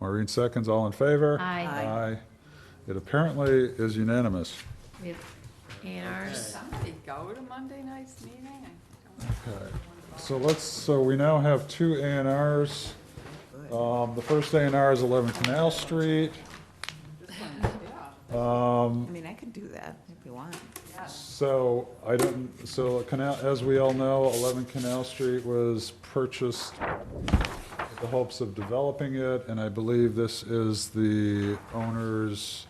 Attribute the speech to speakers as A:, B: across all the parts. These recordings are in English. A: Maureen seconds, all in favor?
B: Aye.
A: Aye. It apparently is unanimous.
B: We have A and Rs.
C: Somebody go to Monday night's meeting? I don't
A: Okay, so let's, so we now have two A and Rs. Um, the first A and R is eleven Canal Street.
D: I mean, I could do that if you want.
A: So I don't, so Canal, as we all know, 11 Canal Street was purchased with the hopes of developing it, and I believe this is the owner's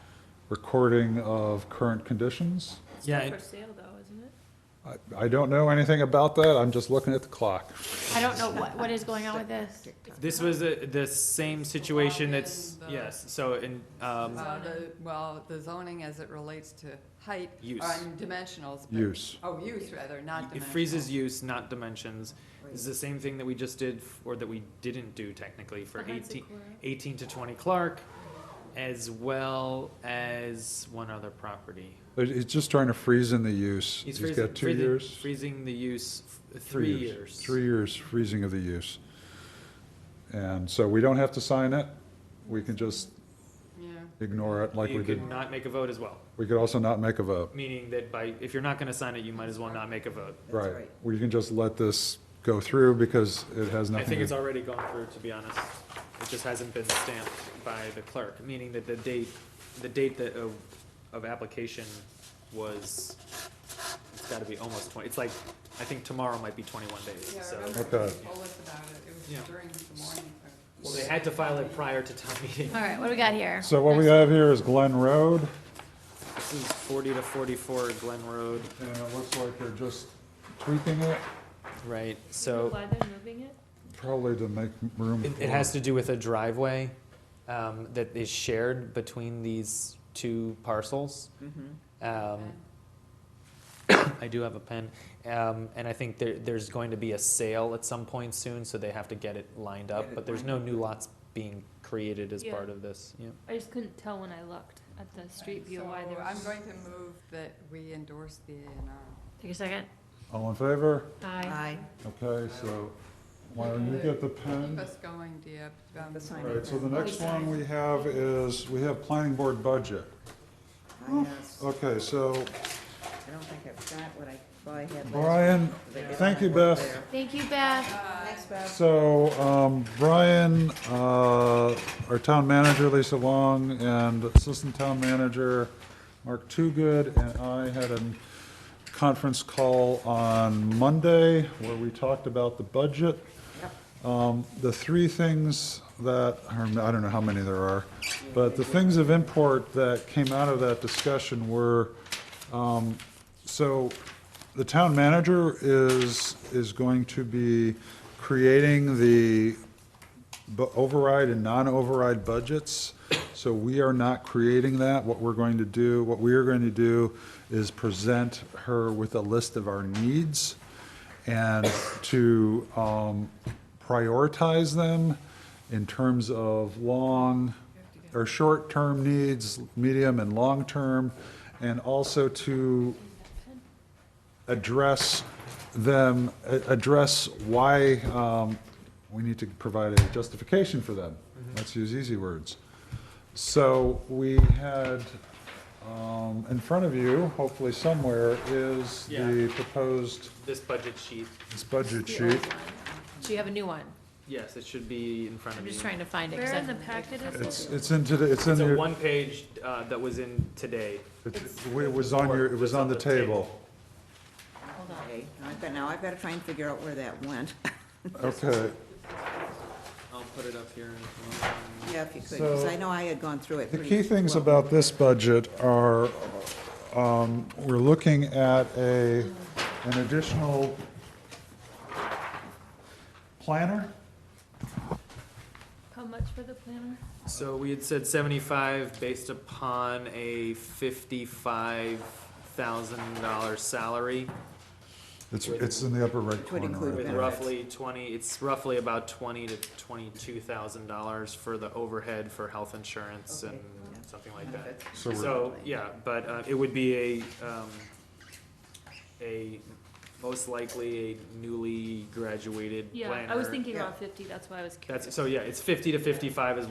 A: recording of current conditions.
E: Yeah,
B: Still
E: it-
B: for sale though, isn't it?
A: I- I don't know anything about that, I'm just looking at the clock.
B: I don't know what, what is going on with this.
E: This was the, the same situation that's,
C: Login, the-
E: yes, so in,
C: know.
E: um,
C: Uh, the- Well, the zoning as it relates to height.
E: Use.
C: On dimensionals. but-
A: Use.
C: Oh, use rather, not
E: it
C: dimensionals.
E: freezes use, not dimensions. This is
D: Right.
E: the same thing that we just did, f- or that we didn't do technically for
B: Behind
E: eighteen,
B: Sequoia.
E: eighteen to twenty Clark, as well as one other property.
A: But He's just trying to freeze in the use.
E: He's
A: He's
E: freezing,
A: got two
E: freezing-
A: years.
E: Freezing the use, f- three years.
A: Three years freezing of the use. And so we don't have to sign it, we can just
C: Yeah.
A: ignore it like we
E: You
A: did.
E: could not make a vote as well,
A: We could also not make a vote.
E: meaning that by, if you're not gonna sign it, you might as well not make a vote.
D: That's
A: Right. We can just let this go through because it has
E: I think
A: nothing
E: it's
A: to.
E: already gone through, to be honest. It just hasn't been stamped by the clerk, meaning that the date, the date that, of, of application was, it's gotta be almost twenty, it's like, I think tomorrow might be twenty-one days,
C: Yeah, I
E: so.
C: remember
A: Okay.
C: being told us about it. It
E: Yeah.
C: was during the morning. of-
E: Well, they had to file it prior to town meeting.
B: All right, what do we got here?
A: So what we have here is Glen Road,
E: This is forty to forty-four Glen Road.
A: and it looks like they're just tweaking it,
E: Right,
B: Why they're moving it?
A: probably to make room.
E: It, it
A: for-
E: has to do with a driveway, um, that is shared between these two parcels.
D: Mm-hmm.
C: Mm-hmm.
E: Um, I do have a pen, um, and I think there, there's going to be a sale at some point soon, so they have to get it lined up.
D: Get it
E: But there's
D: lined
E: no new lots being created as
B: Yeah.
E: part of this. Yeah.
B: I just couldn't tell when I looked at the street view
C: So
B: why they were.
C: I'm going to move that we endorse the A and R.
B: Take a second.
A: All in favor?
B: Aye.
D: Aye.
A: Okay, so why don't you get the
C: Keep
E: Um,
A: pen?
C: us going, Deb. Um,
D: The sign.
A: All right, so the next one we have is, we have planning board budget.
D: I asked-
A: Okay, so
D: I don't think I've got what I, well, I had last.
A: Brian,
D: week, 'cause I did all
A: thank
D: my
A: you,
D: work
A: Beth.
D: there.
B: Thank you, Beth.
D: Thanks, Beth.
A: So, um, Brian, uh, our town manager, Lisa Long, and assistant town manager, Mark Toogood, and I had a conference call on Monday where we talked about the budget. Um, the three things that, or I don't know how many there are, but the things of import that came out of that discussion were, so the town manager is, is going to be creating the bu- override and non-override budgets. So we are not creating that. What we're going to do, what we are going to do is present her with a list of our needs and to um, prioritize them in terms of long, or short-term needs, medium and long-term, and also to address them, a- address why um, we need to provide a justification for them. Let's use easy words. So we had, um, in front of you, hopefully somewhere, is the
E: Yeah.
A: proposed,
E: This budget sheet,
A: this budget
B: The old
A: sheet.
B: one. So you have a new one.
E: yes, it should be in front
B: I'm
E: of you.
B: just trying to find it.
F: Where in the packet is it?
A: It's, it's in today, it's in
E: It's a
A: your,
E: one-page uh, that was in today.
A: it's- it was on your, it was on the table.
B: Hold on.
D: Okay, now I've got, now I've got to try and figure out where that went.
A: Okay,
E: I'll put it up here.
D: Yeah, if you could, because
A: So-
D: I know I had gone through it
A: The
D: pretty
A: key things
D: well.
A: about this budget are, um, we're looking at a, an additional planner?
B: How much for the planner?
E: So we had said seventy-five based upon a fifty-five thousand dollar salary.
A: It's, it's in the upper right
D: Which would
A: corner.
D: include
A: right
E: With
A: there.
D: benefits.
E: roughly twenty, it's roughly about twenty to twenty-two thousand dollars for the overhead for health insurance
D: Okay.
E: and
D: Yeah.
E: something like that.
D: Benefits.
A: So we're-
E: So, yeah, but, uh, it would be a, um, a, most likely a newly graduated planner.
B: Yeah, I was thinking
D: Yeah.
B: around fifty, that's why I was curious.
E: That's, so, yeah, it's fifty to fifty-five is what